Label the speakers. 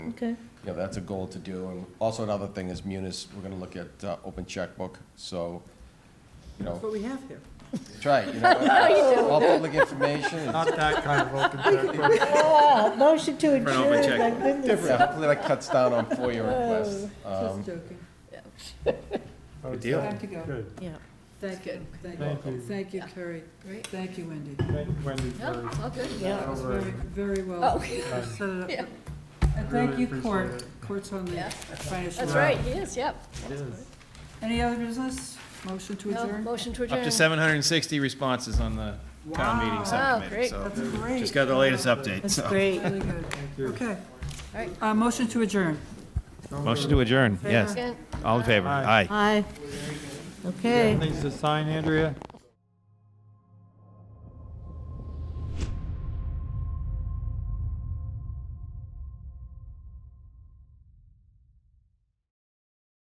Speaker 1: and,
Speaker 2: Okay.
Speaker 1: you know, that's a goal to do. And also another thing is Munis, we're gonna look at, uh, open checkbook, so, you
Speaker 3: That's
Speaker 1: know,
Speaker 3: what we have here.
Speaker 1: try, it, you know, all public information. is-
Speaker 4: Not that kind of open checkbook.
Speaker 2: Ah, motion to
Speaker 5: Print off my
Speaker 2: adjourn, my
Speaker 5: checkbook.
Speaker 2: goodness.
Speaker 1: Yeah, hopefully that cuts down on FOIA requests. Um,
Speaker 3: Just joking.
Speaker 4: Good
Speaker 5: deal.
Speaker 3: I have to go.
Speaker 4: Good.
Speaker 2: Yeah.
Speaker 3: Thank you, thank
Speaker 4: Thank
Speaker 3: you,
Speaker 4: you.
Speaker 3: thank you, Carrie.
Speaker 6: Great.
Speaker 3: Thank you, Wendy.
Speaker 4: Thank you, Wendy,
Speaker 6: No,
Speaker 4: for
Speaker 6: all good.
Speaker 2: Yeah.
Speaker 3: That was
Speaker 4: Over.
Speaker 3: very, very
Speaker 6: Oh,
Speaker 3: well.
Speaker 4: uh,
Speaker 3: set it up.
Speaker 6: Yeah.
Speaker 3: And thank
Speaker 4: Really
Speaker 3: you,
Speaker 4: appreciate
Speaker 3: Court.
Speaker 4: it.
Speaker 3: Court's on the
Speaker 6: Yeah.
Speaker 3: finance.
Speaker 6: That's right, he is, yep.
Speaker 4: yes.
Speaker 3: Any other business? Motion to
Speaker 6: No,
Speaker 3: adjourn?
Speaker 6: motion to adjourn.
Speaker 5: Up to 760 responses on the town
Speaker 3: Wow.
Speaker 5: meeting
Speaker 6: great.
Speaker 5: subcommittee, so
Speaker 3: That's great.
Speaker 5: just got the latest update,
Speaker 2: That's
Speaker 5: so.
Speaker 2: great.
Speaker 3: Really good.
Speaker 4: you.
Speaker 3: Okay.
Speaker 6: Right.
Speaker 3: Uh, motion to adjourn.
Speaker 5: Motion to adjourn, yes.
Speaker 6: Second.
Speaker 5: All in favor?
Speaker 4: Aye.
Speaker 2: Aye. Okay.
Speaker 4: Things to sign, Andrea?